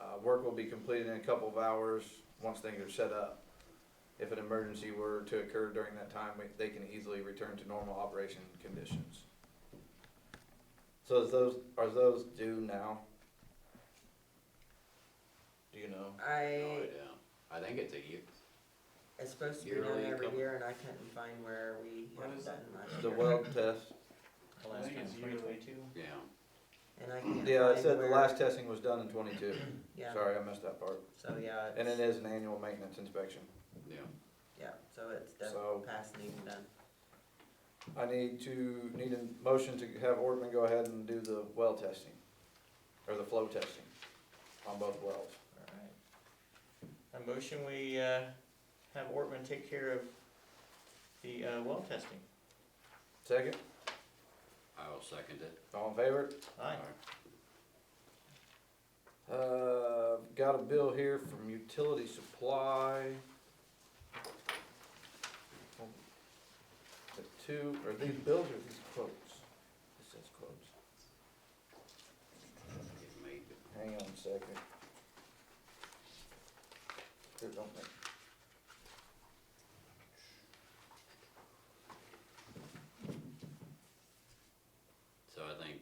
Uh, work will be completed in a couple of hours, once things are set up. If an emergency were to occur during that time, we- they can easily return to normal operation conditions. So is those, are those due now? Do you know? No I, idea. Oh, I think it's a year. it's supposed to be Yearly done every income. year and I couldn't find where we What haven't is done last The year. weld test? The last time, twenty twenty-two? Yeah. And I can't Yeah, I find said the where- last testing was done in twenty-two. Yeah, Sorry, I missed that part. so yeah, And it it's, is an annual maintenance inspection. Yeah. yeah, so it's done, So- past and even done. I need to, need a motion to have Ortman go ahead and do the well testing, or the flow testing on both wells. Alright. A motion, we, uh, have Ortman take care of the, uh, well testing. Second, I will second it. all in favor? Aye. Uh, got a bill here from Utility Supply. The two, are these bills or these quotes? This says quotes. It made it. Hang on a second. Here, don't make- So I think,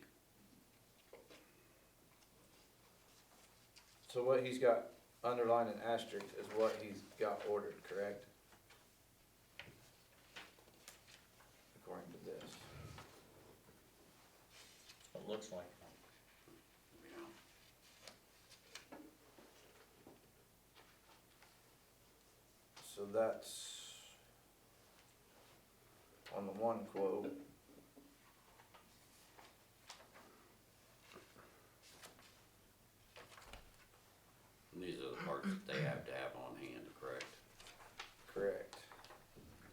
So what he's got underlined and asterisked is what he's got ordered, correct? According to this. It looks like. you know, So that's on the one quote. these are the parts that they have to have on hand, correct? Correct.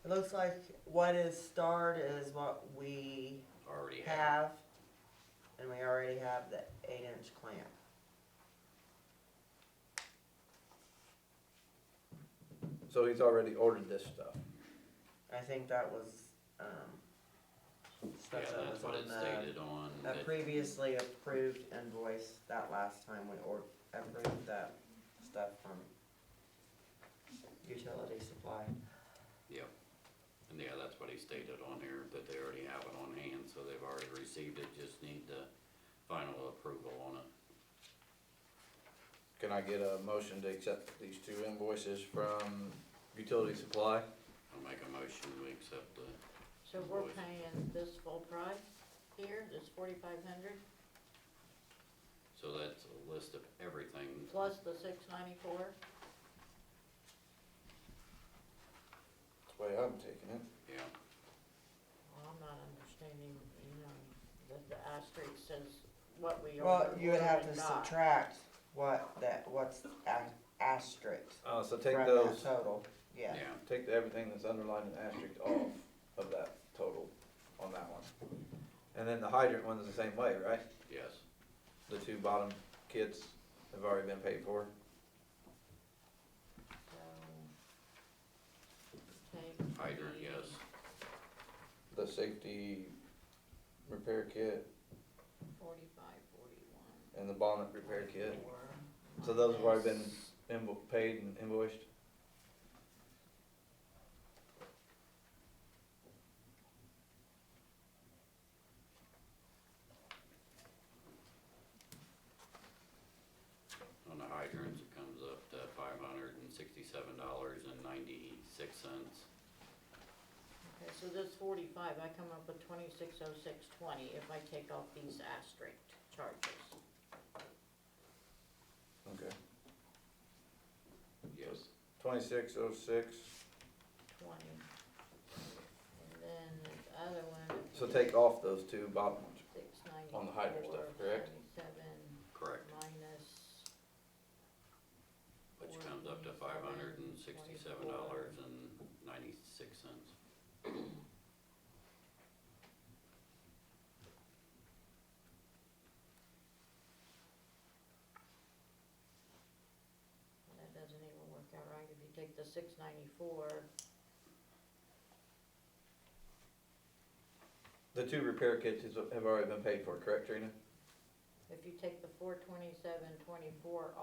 It looks like what is starred is what we Already have. have, and we already have the eight inch clamp. So he's already ordered this stuff. I think that was, um, Yeah, stuff that that's was what on it the, stated on. that it. previously approved invoice that last time we or, approved that stuff from utility supply. Yep. And yeah, that's what he stated on here, that they already have it on hand, so they've already received it, just need the final approval on it. Can I get a motion to accept these two invoices from Utility Supply? I'll make a motion, we accept the, So we're paying this full price here, this forty-five hundred, so that's a list of everything. plus the six ninety-four? That's the way I'm taking it. Yeah, Well, I'm not understanding, you know, that the asterisk says what we are. Well, you would have to subtract what that, what's a- asterisk Uh, so from take that those, total, yeah. yeah. take the everything that's underlined and asterisked off of that total on that one. And then the hydrant one's the same way, right? Yes, The two bottom kits have already been paid for. hydrant, yes, The safety repair kit Forty-five, forty-one. and the bonnet repair kit. So those have already been invo- paid and invoiced? on the hydrants, it comes up to five hundred and sixty-seven dollars and ninety-six cents. Okay, so this forty-five, I come up with twenty-six oh six twenty if I take off these asterisk charges. Okay. Yes, Twenty-six oh six, twenty. And then the other one. so take off those two bottom ones. Six on the hydrant stuff, correct? Seventy-seven correct, minus. which comes up to five hundred and sixty-seven dollars and ninety-six cents. That doesn't even work out right if you take the six ninety-four. The two repair kits is- have already been paid for, correct, Trina? If you take the four twenty-seven twenty-four